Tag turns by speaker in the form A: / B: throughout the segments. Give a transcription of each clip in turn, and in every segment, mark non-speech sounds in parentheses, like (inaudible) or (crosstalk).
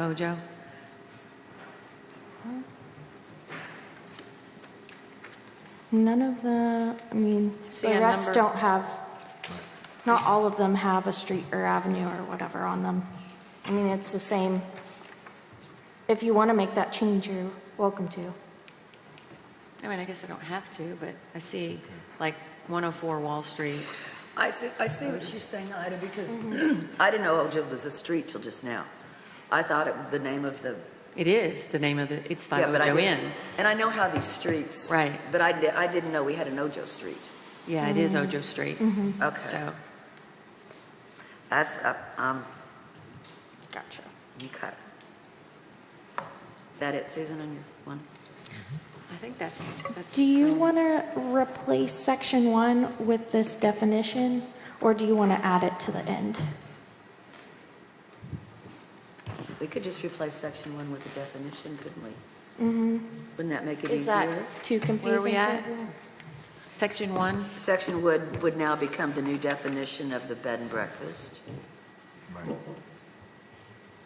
A: Bojo?
B: None of the, I mean,
A: See
B: the
A: a
B: rest
A: number?
B: don't have, not all of them have a street or avenue or whatever on them. I mean, it's the same. If you want to make that change, you're welcome to.
A: I mean, I guess I don't have to, but I see like 104 Wall Street.
C: I see, I see what she's saying, Ida, because (clears throat) I didn't know Ojo was a street till just now. I thought it, the name of the,
A: It is the name of the, it's 5
C: Yeah, but I
A: Ojo Inn.
C: didn't- and I know how these streets.
A: Right.
C: But I, di- I didn't know we had an Ojo Street.
A: Yeah, it
B: Mm.
A: is Ojo Street.
B: Mm-hmm.
C: Okay.
A: So,
C: That's, uh, um,
B: Gotcha.
C: you cut. Is that it, Susan, on your one?
A: I think that's, that's.
B: Do you want to replace section one with this definition, or do you want to add it to the end?
C: We could just replace section one with a definition, couldn't we? Wouldn't that make it
B: Is that
C: easier?
B: too confusing?
A: we
B: for
A: at?
B: everyone?
A: Section 1,
C: Section would, would now become the new definition of the bed and breakfast.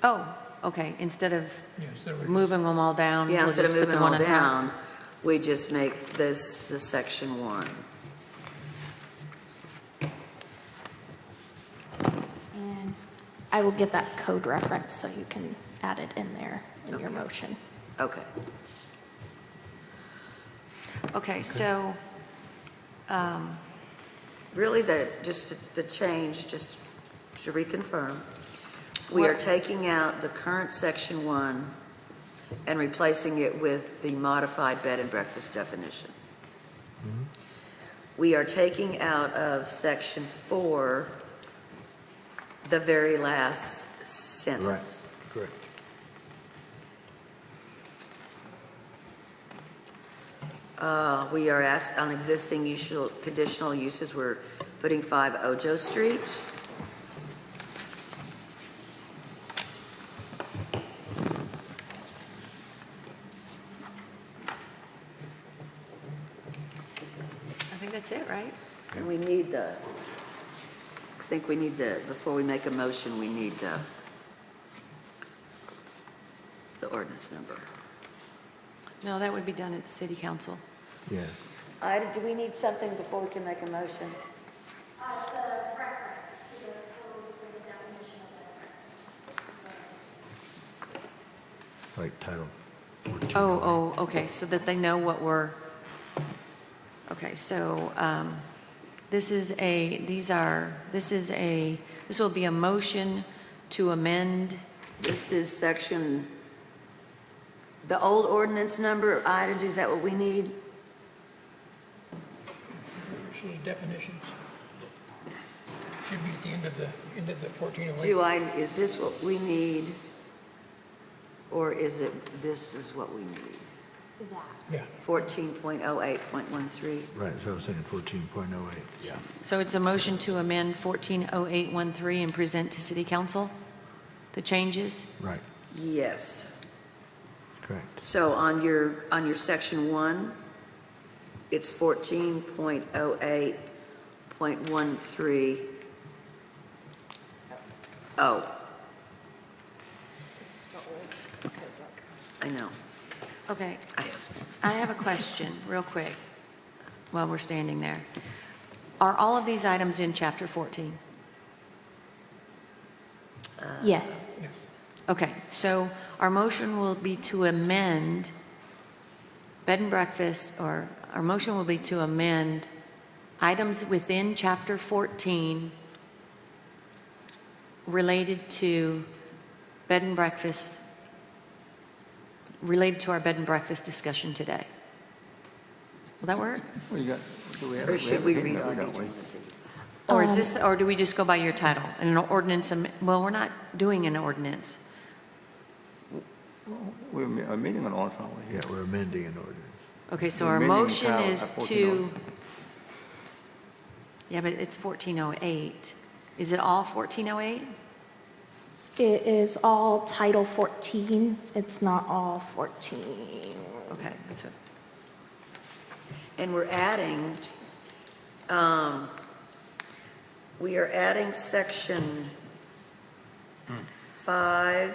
A: oh, okay, instead of
D: Yes, there we
A: moving them all down,
C: Yeah,
A: we'll
C: instead of
A: just put
C: moving
A: the
C: them
A: one
C: all
A: on top.
C: down, we just make this the section one.
B: And I will get that code reference so you can add it in there in your
C: Okay.
B: motion.
C: Okay.
A: Okay, so, um,
C: Really, the, just the change, just to reconfirm, we are
A: What-
C: taking out the current section one and replacing it with the modified bed and breakfast definition.
A: Mm-hmm.
C: We are taking out of section four the very last sentence.
D: Correct.
C: Uh, We are asked on existing usual, conditional uses, we're putting 5 Ojo Street.
A: I think that's it, right?
C: And we need the, I think we need the, before we make a motion, we need uh, the, the ordinance number.
A: No, that would be done at city council.
D: Yeah.
C: Ida, do we need something before we can make a motion?
E: Uh, the reference to the code for the definition of it.
D: Like title 14.
A: Oh, oh, okay, so that they know what we're, okay, so um, this is a, these are, this is a, this will be a motion to amend,
C: This is section, the old ordinance number, Ida, is that what we need?
D: Shows definitions. Should be at the end of the, end of the 1408.
C: Do I, is this what we need? Or is it, this is what we need?
D: Yeah,
C: 14.08.13.
D: right, so I was saying 14.08. Yeah.
A: so it's a motion to amend 140813 and present to city council the changes?
D: Right,
C: Yes.
D: correct.
C: So on your, on your section one, it's 14.08.13. Oh. I know.
A: Okay,
C: I have-
A: I have a question, real quick, while we're standing there. Are all of these items in chapter 14?
B: Yes.
A: Okay, so our motion will be to amend bed and breakfast, or our motion will be to amend items within Chapter 14 related to bed and breakfast, related to our bed and breakfast discussion today. Will that work?
F: Well, you got, do we have?
C: Or
F: have
C: should
F: a
C: we read
F: handout,
C: on
F: don't
C: each
F: we?
C: one of these?
A: Or is
B: Um,
A: this, or do we just go by your title? And an ordinance, am- well, we're not doing an ordinance.
F: We're me- a meeting on ordinance, aren't we?
D: Yeah, we're amending an ordinance.
A: Okay, so
F: We're
A: our
F: amending the
A: motion
F: title
A: is
F: at 1408.
A: to, yeah, but it's 1408. Is it all 1408?
B: It is all Title 14. It's not all 14.
F: oh
A: Okay, that's what,
C: And we're adding, um,
F: Hmm.
C: we are adding section five